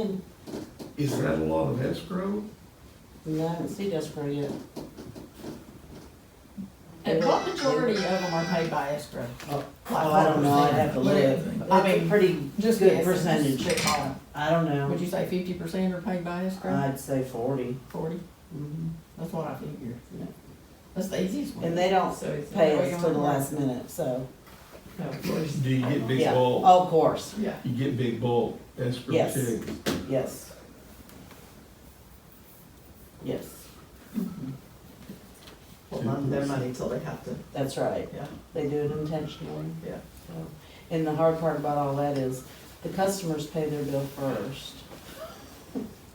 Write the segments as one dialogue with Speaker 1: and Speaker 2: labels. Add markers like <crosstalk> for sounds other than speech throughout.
Speaker 1: in.
Speaker 2: Is that a lot of escrow?
Speaker 1: We haven't seen escrow yet. The broad majority of them are paid by escrow.
Speaker 3: Oh,
Speaker 1: Like
Speaker 3: oh, I don't know, I'd
Speaker 1: 5%.
Speaker 3: have to look.
Speaker 1: I
Speaker 3: That's a
Speaker 1: mean,
Speaker 3: Pretty
Speaker 1: Just
Speaker 3: good
Speaker 1: guessing, just
Speaker 3: percentage.
Speaker 1: spitballing.
Speaker 3: I don't
Speaker 1: Would
Speaker 3: know,
Speaker 1: you say fifty percent are paid by escrow?
Speaker 3: I'd say forty.
Speaker 1: Forty? Mm-hmm. That's what I figure.
Speaker 3: Yeah.
Speaker 1: That's the easiest one.
Speaker 3: And they don't
Speaker 1: So it's-
Speaker 3: Pay
Speaker 1: Oh, you
Speaker 3: us till the
Speaker 1: want-
Speaker 3: last minute, so,
Speaker 1: No, of course.
Speaker 2: Do you get big
Speaker 3: yeah, Oh,
Speaker 2: bulk?
Speaker 3: of course,
Speaker 1: Yeah.
Speaker 2: You get big bulk escrow
Speaker 3: Yes.
Speaker 2: checks?
Speaker 3: yes. Yes,
Speaker 1: Hold on to their money till they have to,
Speaker 3: that's right,
Speaker 1: yeah.
Speaker 3: they do it intentionally.
Speaker 1: Yeah.
Speaker 3: So, And the hard part about all that is, the customers pay their bill first,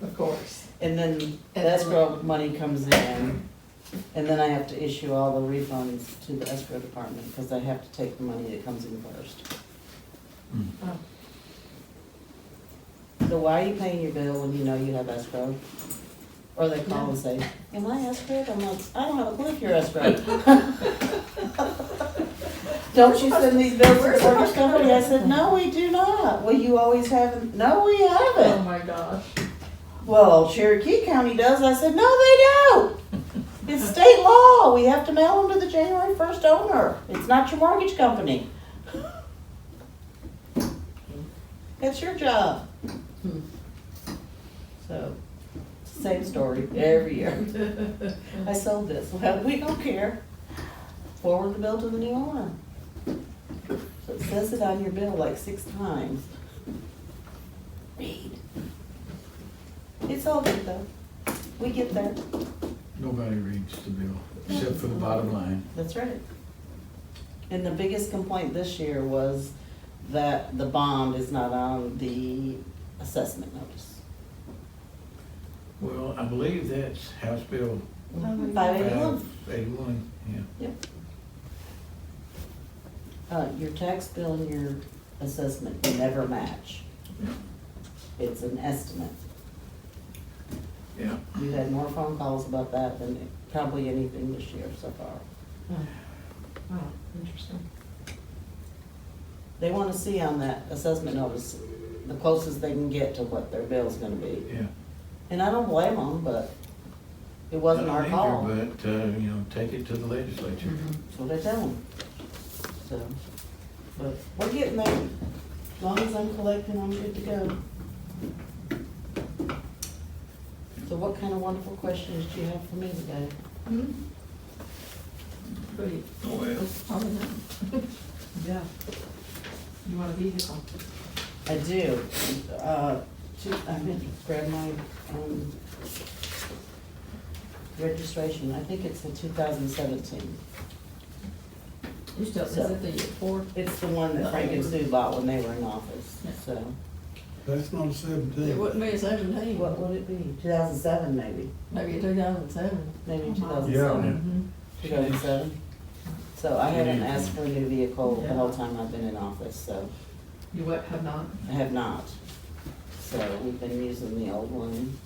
Speaker 1: Of course.
Speaker 3: and then the escrow money comes in, and then I have to issue all the refunds to the escrow department, because I have to take the money that comes in first.
Speaker 1: Oh,
Speaker 3: So why are you paying your bill when you know you have escrow? Or they call and say, am I escrowed? I'm like, I don't have a clue if you're escrowed. <laughs> Don't you send these bills to the mortgage company? I said, no, we do not. Well, you always have, no, we
Speaker 1: Oh,
Speaker 3: haven't.
Speaker 1: my gosh. <laughs>
Speaker 3: Well, Cherokee County does. I said, no, they don't. It's state law. We have to mail them to the January first owner. It's not your mortgage company. That's your job. So, same story every year.
Speaker 1: Oh,
Speaker 3: I sold this. Well, we don't care. Forward the bill to the new owner. So it says it on your bill like six times. Read. It's all good though. We get there.
Speaker 4: Nobody reads the bill, except for the bottom line.
Speaker 3: That's right. And the biggest complaint this year was that the bond is not on the assessment notice.
Speaker 4: Well, I believe that's House Bill
Speaker 1: Mhm.
Speaker 3: Five eighty-one.
Speaker 4: five eighty-one, yeah.
Speaker 3: Uh, your tax bill and your assessment never match. It's an estimate.
Speaker 4: Yeah,
Speaker 3: We've had more phone calls about that than probably anything this year so far.
Speaker 1: Oh, interesting.
Speaker 3: They wanna see on that assessment notice the closest they can get to what their bill's gonna be.
Speaker 4: yeah.
Speaker 3: And I don't blame them, but it wasn't our
Speaker 4: Not
Speaker 3: call. Mm-hmm.
Speaker 4: either, But, uh, you know, take it to the legislature.
Speaker 3: That's what I tell them. So, but we're getting there. As long as I'm collecting, I'm good to go. So what kind of wonderful questions do you have for me today?
Speaker 1: Mm-hmm. Pretty.
Speaker 2: Oh,
Speaker 4: Well.
Speaker 1: Probably not.
Speaker 3: Yeah.
Speaker 1: You want a vehicle?
Speaker 3: I do. Uh, two- I meant to grab my, um, registration. I think it's the two thousand seventeen.
Speaker 1: You still, is
Speaker 3: So-
Speaker 1: it the Ford?
Speaker 3: It's the one that Frank and Sue bought when they were in office, so.
Speaker 5: That's not a
Speaker 1: It
Speaker 5: seventeen.
Speaker 1: wouldn't be a seventeen.
Speaker 3: What would it be? Two thousand seven, maybe.
Speaker 1: Maybe two thousand seven.
Speaker 3: Maybe two thousand
Speaker 2: Yeah.
Speaker 3: Two thousand seven? So I haven't asked for a new vehicle the whole time I've been in office, so
Speaker 1: Mm-hmm. You what, have not?
Speaker 3: I have not. So we've been using the old one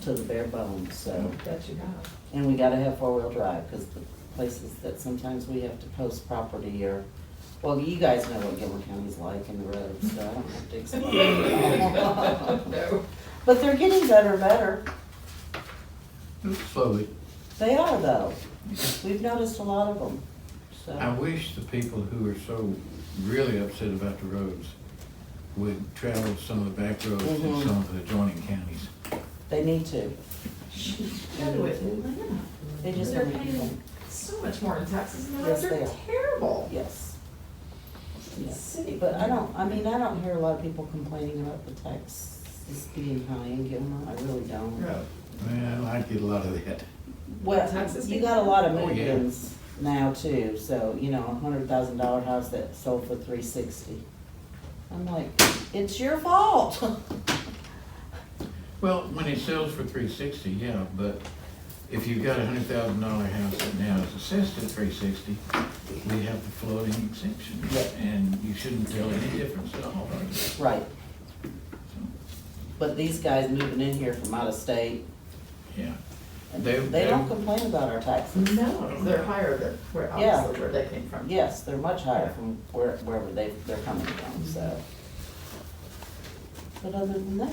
Speaker 3: to the bare bones, so.
Speaker 1: That you got.
Speaker 3: And we gotta have four-wheel drive, because the places that sometimes we have to post property or, well, you guys know what Gilmer County's like in the roads, so I don't have to explain. it
Speaker 1: <laughs>
Speaker 3: all.
Speaker 1: No.
Speaker 3: But they're getting better, better.
Speaker 4: Slowly.
Speaker 3: They are though. We've noticed a lot of them, so.
Speaker 4: I wish the people who are so really upset about the roads would travel some of the back roads in
Speaker 3: Mhm.
Speaker 4: some of the adjoining counties.
Speaker 3: They need to.
Speaker 1: No, it isn't.
Speaker 3: They just
Speaker 1: They're
Speaker 3: don't make
Speaker 1: paying-
Speaker 3: them.
Speaker 1: So much more in taxes, and the
Speaker 3: Yes,
Speaker 1: roads
Speaker 3: they
Speaker 1: are
Speaker 3: are.
Speaker 1: terrible.
Speaker 3: Yes. Yes.
Speaker 1: City,
Speaker 3: But I don't, I mean, I don't hear a lot of people complaining about the taxes being high in Gilmore. I really don't.
Speaker 4: Yeah. Well, I get a lot of that.
Speaker 3: Well,
Speaker 1: Taxes
Speaker 3: you
Speaker 1: being
Speaker 3: got a lot of
Speaker 4: high? Oh, yeah.
Speaker 3: move-ins now too, so, you know, a hundred thousand dollar house that sold for three sixty. I'm like, it's your fault. <laughs>
Speaker 4: Well, when it sells for three sixty, yeah, but if you've got a hundred thousand dollar house that now is assessed at three sixty, we have the floating exemption,
Speaker 3: Yep.
Speaker 4: and you shouldn't tell any difference at all.
Speaker 3: Right,
Speaker 4: So,
Speaker 3: but these guys moving in here from out of state,
Speaker 4: Yeah,
Speaker 3: they
Speaker 4: They-
Speaker 3: don't
Speaker 4: they-
Speaker 3: complain about our taxes.
Speaker 1: No, they're higher than, where,
Speaker 3: Yeah.
Speaker 1: obviously, where they came from.
Speaker 3: Yes, they're much higher from where, wherever they, they're coming from, so. But other than that,